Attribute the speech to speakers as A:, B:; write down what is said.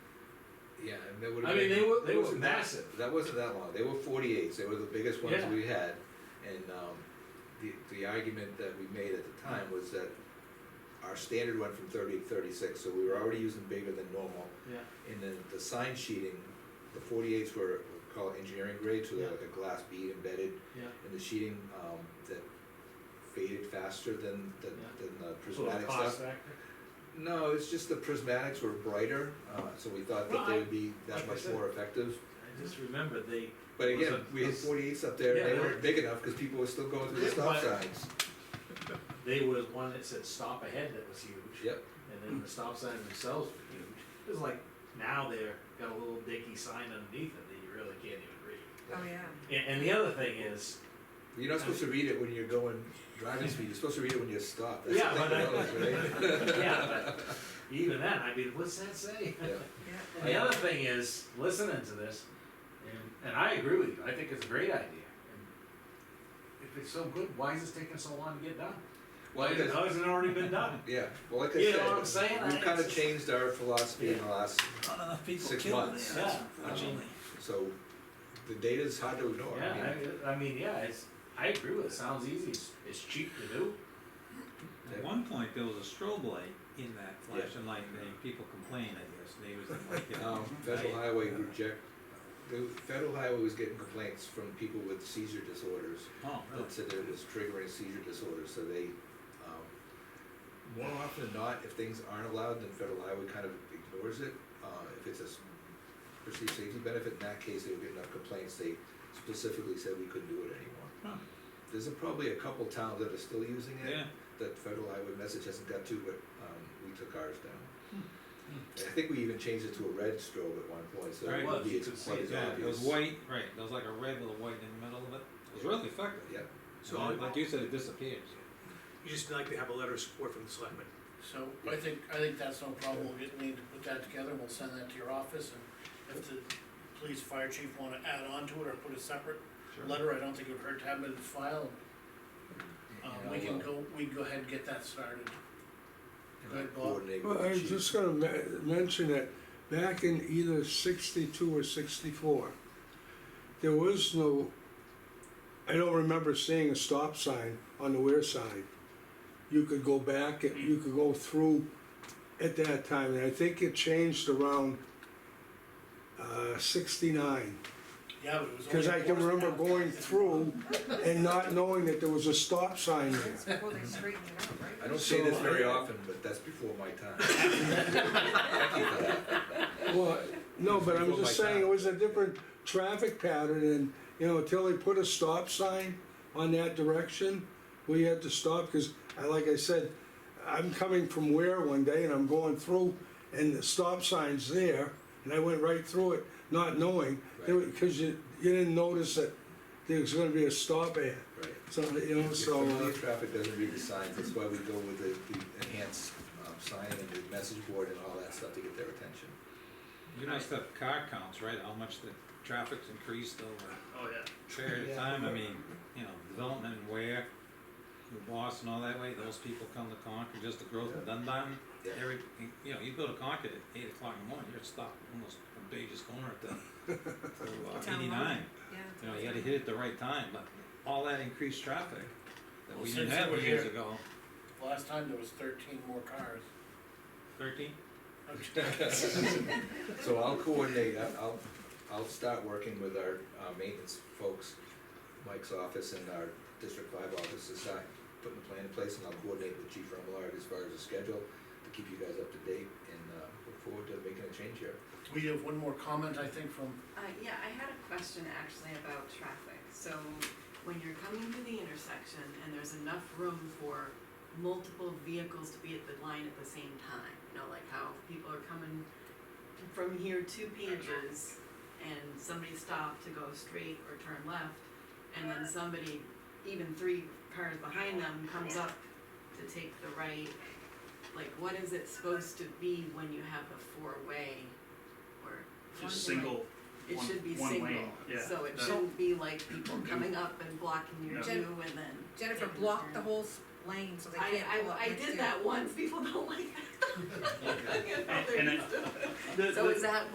A: yeah, and they would.
B: I mean, they were, they were massive.
A: That wasn't that long, they were forty-eights, they were the biggest ones
B: Yeah.
A: we had, and, um, the, the argument that we made at the time was that our standard went from thirty to thirty-six, so we were already using bigger than normal,
B: Yeah.
A: and then the sign sheeting, the forty-eights were called engineering grade, so they're
B: Yeah.
A: like a glass bead embedded
B: Yeah.
A: in the sheeting, um, that faded faster than, than,
B: Yeah.
A: than the
C: It's a little
A: prismatic stuff.
C: cost factor.
A: No, it's just the prismatics were brighter, uh, so we thought
B: Well,
A: that
B: I-
A: they would be that
C: like I
A: much
C: said-
A: more effective.
C: I just remember they,
A: But
C: Was
A: again,
C: it-
A: we had
C: was-
A: forty-eights up there,
B: Yeah,
A: and they
B: they
A: weren't
B: were-
A: big enough, cause people were still going through the
C: Yeah,
A: stop
C: but-
A: signs.
C: they was one that said stop ahead that was huge.
A: Yep,
C: And then the stop signs themselves were huge. It was like, now they're, got a little dinky sign underneath it that you really can't even read.
D: Oh, yeah.
C: And, and the other thing is,
A: you're not supposed to read it when you're going driving speed, you're supposed to read it when you're stopped, that's
C: Yeah,
A: the
C: but I-
A: thing with those, right?
C: yeah, but even then, I mean, what's that say?
A: Yeah.
C: And the other thing is, listening to this, and, and I agree with you, I think it's a great idea. And If it's so good, why is this taking so long to get done?
A: Well,
C: Why is it,
A: because-
C: how has it already been done?
A: yeah, well, like I said.
C: You know what I'm saying? I-
A: We've kinda
C: it's-
A: changed our philosophy in the last,
E: Not enough people
A: Six
E: killed
A: months.
E: there,
C: Yeah.
E: unfortunately.
A: so the data's hard to ignore, I mean,
C: Yeah, I, I mean, yeah, it's, I agree with it, sounds easy, it's, it's cheap to do.
E: At one point, there was a strobe light in that flashing light, and people complained, I guess, neighbors didn't like it.
A: Um, federal
E: Right.
A: highway reject, the federal highway was getting complaints from people with seizure disorders
E: Oh, really?
A: that said that it was triggering seizure disorders, so they, um, more often than not, if things aren't allowed, then federal highway kind of ignores it. Uh, if it's a s- perceived safety benefit, in that case, they would get enough complaints, they specifically said we couldn't do it anymore.
E: Huh.
A: There's a- probably a couple towns that are still using it,
E: Yeah,
A: that federal highway message hasn't got to, but, um, we took ours down. I think we even changed it to a red strobe at one point, so it
E: Right.
A: would be
C: You
A: it's
C: could see
A: quite
C: it,
A: as
E: yeah, it was
A: obvious.
E: white, right, there was like a red with a white in the middle of it, it was really effective.
A: Yeah,
E: So like you said, it disappears.
F: You uh, just like to have a letter of support from the selectmen.
G: So I think, I think that's no problem, we'll get, need to put that together, and we'll send that to your office, and if the police fire chief wanna add on to it or put a separate letter, I don't think it would hurt to have it in file. Um,
A: And
G: we
A: I'll,
G: can
A: uh,
G: go, we can go ahead and get that started.
A: and
G: Go ahead,
A: I'll
G: Bob.
A: coordinate with
H: Well,
A: the
H: I was
A: chief.
H: just gonna me- mention that back in either sixty-two or sixty-four, there was no, I don't remember seeing a stop sign on the Weir side. You could go back, you could go through at that time, and I think it changed around uh, sixty-nine.
G: Yeah, but it was.
H: Cause
G: only
H: I can
G: enforced
H: remember
G: now.
H: going through and not knowing that there was a stop sign there.
D: That's before they straightened it out, right?
A: I don't say this
H: So-
A: very often, but that's before my time. Thank you for that.
H: Well, no, but I'm
A: People
H: just
A: like
H: saying,
A: that.
H: it was a different traffic pattern and, you know, until they put a stop sign on that direction, we had to stop, cause I, like I said, I'm coming from where one day and I'm going through and the stop sign's there, and I went right through it, not knowing, there were- cause you, you didn't notice that there was gonna be a stop at,
A: Right.
H: so, you know,
A: If
H: so, uh,
A: somebody in traffic doesn't read the signs, that's why we go with the, the enhanced, um, sign and the message board and all that stuff to get their attention.
E: You must have car counts, right, how much the traffic's increased over
C: Oh, yeah.
E: a period of time, I mean, you know, development and where, the Boston, all that way, those people come to Concord, just the growth of Dunbar,
A: Yeah.
E: every, you know, you go to Concord at eight o'clock in the morning, you're stopped almost from Dage's Corner to, to uh,
D: Town line.
E: eighty-nine.
D: Yeah.
E: You know, you gotta hit it the right time, but all that increased traffic that
G: Well,
E: we didn't
G: since
E: have
G: we're
E: years
G: here-
E: ago,
G: Last time there was thirteen more cars.
E: thirteen,
A: So I'll coordinate, I- I'll, I'll start working with our, uh, maintenance folks, Mike's office and our District Five office to start putting a plan in place, and I'll coordinate with Chief Remillard as far as the schedule to keep you guys up to date, and, uh, look forward to making a change here.
G: We have one more comment, I think, from,
I: Uh, yeah, I had a question actually about traffic. So when you're coming to the intersection and there's enough room for multiple vehicles to be at the line at the same time, you know, like how people are coming from here to Pages and somebody stopped to go straight or turn left, and then somebody, even three cars behind them, comes up to take the right. Like, what is it supposed to be when you have a four-way or?
F: Just
I: one-way?
F: single,
I: It
F: one-
I: should be
F: one
I: single,
F: lane, yeah.
I: so it
F: That-
I: shouldn't be like people coming up and blocking your
F: No.
I: two and then.
D: Jennifer blocked the whole s- lane, so they
I: I,
D: can't pull up
I: I, I
D: next to you.
I: did that once, people don't like that.
F: and I- the,
I: So
F: the-
I: is that